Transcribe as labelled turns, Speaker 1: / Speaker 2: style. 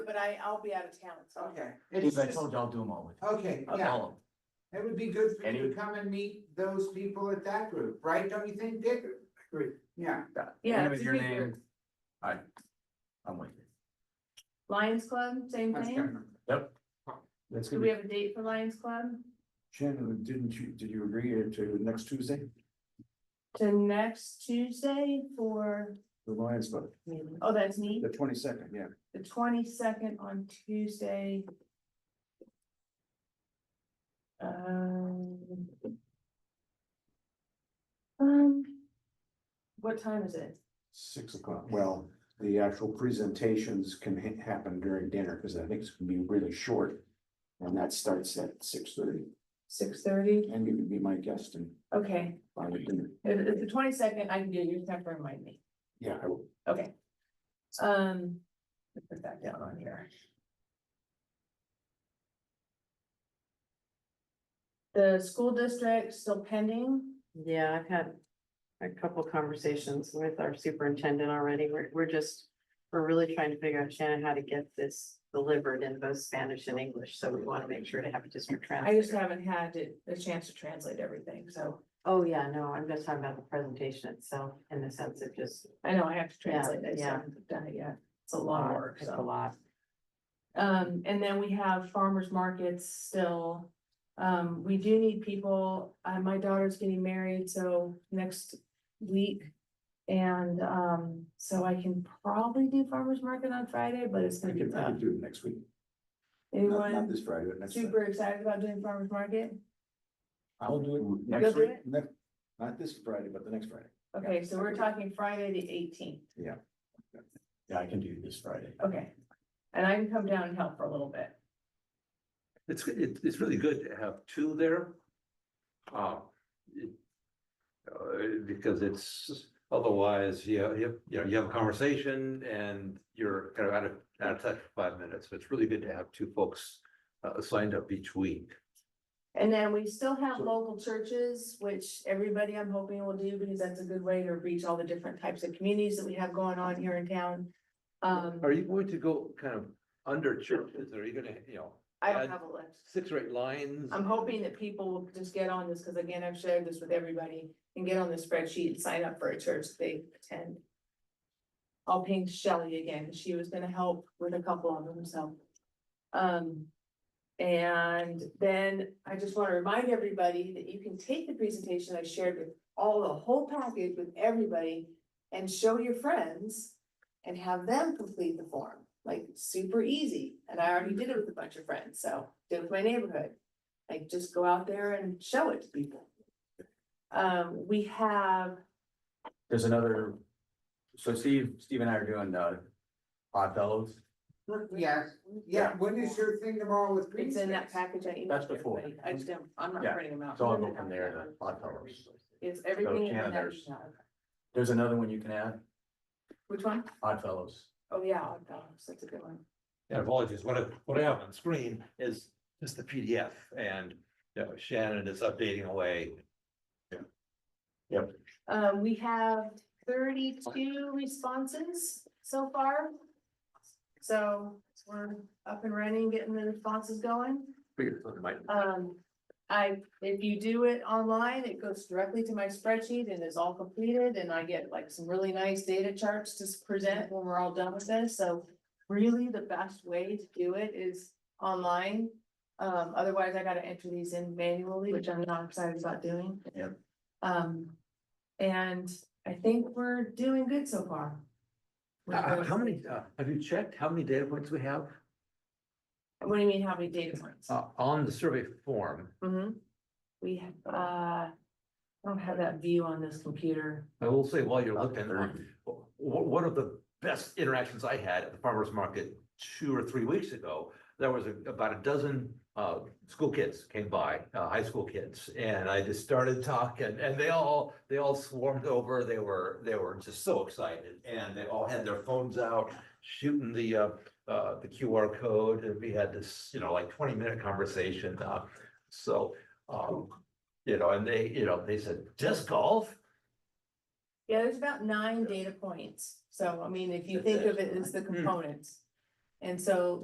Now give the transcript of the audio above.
Speaker 1: but I, I'll be out of town, so.
Speaker 2: Okay,
Speaker 3: Because
Speaker 4: It's
Speaker 3: I
Speaker 4: just,
Speaker 3: told you I'll do them all with
Speaker 1: Oh,
Speaker 3: you.
Speaker 2: okay,
Speaker 3: I'll do
Speaker 2: yeah,
Speaker 3: all of them.
Speaker 2: it would be good for you
Speaker 3: Any-
Speaker 2: to come and meet those people at that group, right? Don't you think, Dick?
Speaker 4: Agree.
Speaker 2: Yeah,
Speaker 1: Yeah.
Speaker 3: Name is
Speaker 1: it's
Speaker 3: your
Speaker 1: a big
Speaker 3: name.
Speaker 1: group.
Speaker 3: I'm with you.
Speaker 1: Lions Club, same
Speaker 2: that's
Speaker 1: thing.
Speaker 2: good.
Speaker 4: that's
Speaker 1: Do
Speaker 4: gonna
Speaker 1: we
Speaker 4: be,
Speaker 1: have a date for Lions Club?
Speaker 4: Shannon, didn't you, did you agree to next Tuesday,
Speaker 1: To next Tuesday for,
Speaker 4: the Lions, but
Speaker 1: oh, that's me,
Speaker 4: the twenty second, yeah.
Speaker 1: the twenty-second on Tuesday. Um. Um. What time is it?
Speaker 4: Six o'clock, well, the actual presentations can ha- happen during dinner, because I think it's gonna be really short. And that starts at six thirty,
Speaker 1: Six thirty?
Speaker 4: and you can be my guest and
Speaker 1: Okay,
Speaker 4: buy the dinner,
Speaker 1: if, if the twenty-second, I can do, it. you just have to remind me.
Speaker 4: yeah, I will.
Speaker 1: Okay. Um, let's put that down on here. The school district still pending,
Speaker 5: Yeah, I've had a couple conversations with our superintendent already. We're, we're just, we're really trying to figure out, Shannon, how to get this delivered in both Spanish and English, so we want to make sure to have it just for
Speaker 1: I just
Speaker 5: translation.
Speaker 1: haven't had it- a chance to translate everything, so
Speaker 5: Oh, yeah, no, I'm just talking about the presentation itself in the sense of just.
Speaker 1: I know I have to
Speaker 5: Yeah,
Speaker 1: translate, I just
Speaker 5: yeah.
Speaker 1: haven't done it yet, it's a lot of work,
Speaker 5: It's a
Speaker 1: so.
Speaker 5: lot.
Speaker 1: Um, and then we have farmers markets still. Um, we do need people, uh, my daughter's getting married, so next week. And, um, so I can probably do farmers market on Friday, but it's
Speaker 4: I
Speaker 1: gonna be
Speaker 4: can, I
Speaker 1: tough.
Speaker 4: can do it next week, not, not
Speaker 1: Anyone
Speaker 4: this Friday, but next. Friday.
Speaker 1: super excited about doing farmers market?
Speaker 4: I'll do it
Speaker 1: You'll
Speaker 4: next
Speaker 1: do
Speaker 4: week,
Speaker 1: it?
Speaker 4: next, not this Friday, but the next Friday.
Speaker 1: Okay, so we're talking Friday the eighteenth,
Speaker 3: Yeah, I can do this Friday.
Speaker 1: okay. And I can come down and help for a little bit.
Speaker 6: It's, it, it's really good to have two there. Uh, it- uh, because it's, otherwise, you, know, you, you know, you have a conversation and you're kind of out of, out of touch for five minutes. So it's really good to have two folks uh, signed up each week.
Speaker 1: And then we still have
Speaker 4: So-
Speaker 1: local churches, which everybody I'm hoping will do, because that's a good way to reach all the different types of communities that we have going on here in town. Um,
Speaker 6: Are you going to go kind of under churches? Are you gonna, you know,
Speaker 1: I don't have a list.
Speaker 6: six or eight lines?
Speaker 1: I'm hoping that people will just get on this, because again, I've shared this with everybody, and get on the spreadsheet and sign up for a church that they attend. I'll ping Shelley again, she was gonna help with a couple of them, so. Um, and then I just wanna remind everybody that you can take the presentation I shared with all, the whole package with everybody. And show your friends and have them complete the form, like super easy, and I already did it with a bunch of friends, so, did it with my neighborhood. Like, just go out there and show it to people. Um, we have,
Speaker 3: There's another, so Steve, Steve and I are doing, uh, Odd Fellows.
Speaker 2: Yeah, yeah, when is your thing tomorrow with Green
Speaker 1: it's in that
Speaker 2: Space?
Speaker 1: package I emailed.
Speaker 3: That's before.
Speaker 1: everybody. I just don't, I'm not
Speaker 3: Yeah,
Speaker 1: printing them out.
Speaker 3: so I'll go from there to Odd Fellows.
Speaker 1: It's everything. in
Speaker 3: Shannon,
Speaker 1: that
Speaker 3: there's-
Speaker 1: email.
Speaker 3: There's another one you can add,
Speaker 1: Which one?
Speaker 3: Odd Fellows.
Speaker 1: Oh, yeah, Odd Fellows, that's a good one.
Speaker 6: And apologies, what I, what I have on screen is just the PDF and, you know, Shannon is updating away.
Speaker 1: Um, we have thirty-two responses so far. So we're up and running, getting the responses going.
Speaker 6: Figured something might-
Speaker 1: Um, I, if you do it online, it goes directly to my spreadsheet and is all completed and I get like some really nice data charts to s- present when we're all done with this, so. Really, the best way to do it is online. Um, otherwise I gotta enter these in manually, which I'm not excited about doing.
Speaker 3: Yep.
Speaker 1: Um, and I think we're doing good so far.
Speaker 6: Uh, How many, uh, have you checked how many data points we have
Speaker 1: What do you mean, how many data points?
Speaker 6: uh, on the survey form?
Speaker 1: Mhm. We have, uh, I don't have that view on this computer.
Speaker 6: I will say while you're
Speaker 3: Up to
Speaker 6: looking, uh,
Speaker 3: 30.
Speaker 6: o- one of the best interactions I had at the farmer's market two or three weeks ago, there was a- about a dozen uh, school kids came by, uh, high school kids, and I just started talking, and they all, they all swarmed over. They were, they were just so excited, and they all had their phones out, shooting the uh, uh, the QR code, and we had this, you know, like twenty-minute conversation. uh, So, um, you know, and they, you know, they said, disc golf?
Speaker 1: Yeah, there's about nine data points. So I mean, if you
Speaker 6: That's
Speaker 1: Hmm. think of it as the components. And so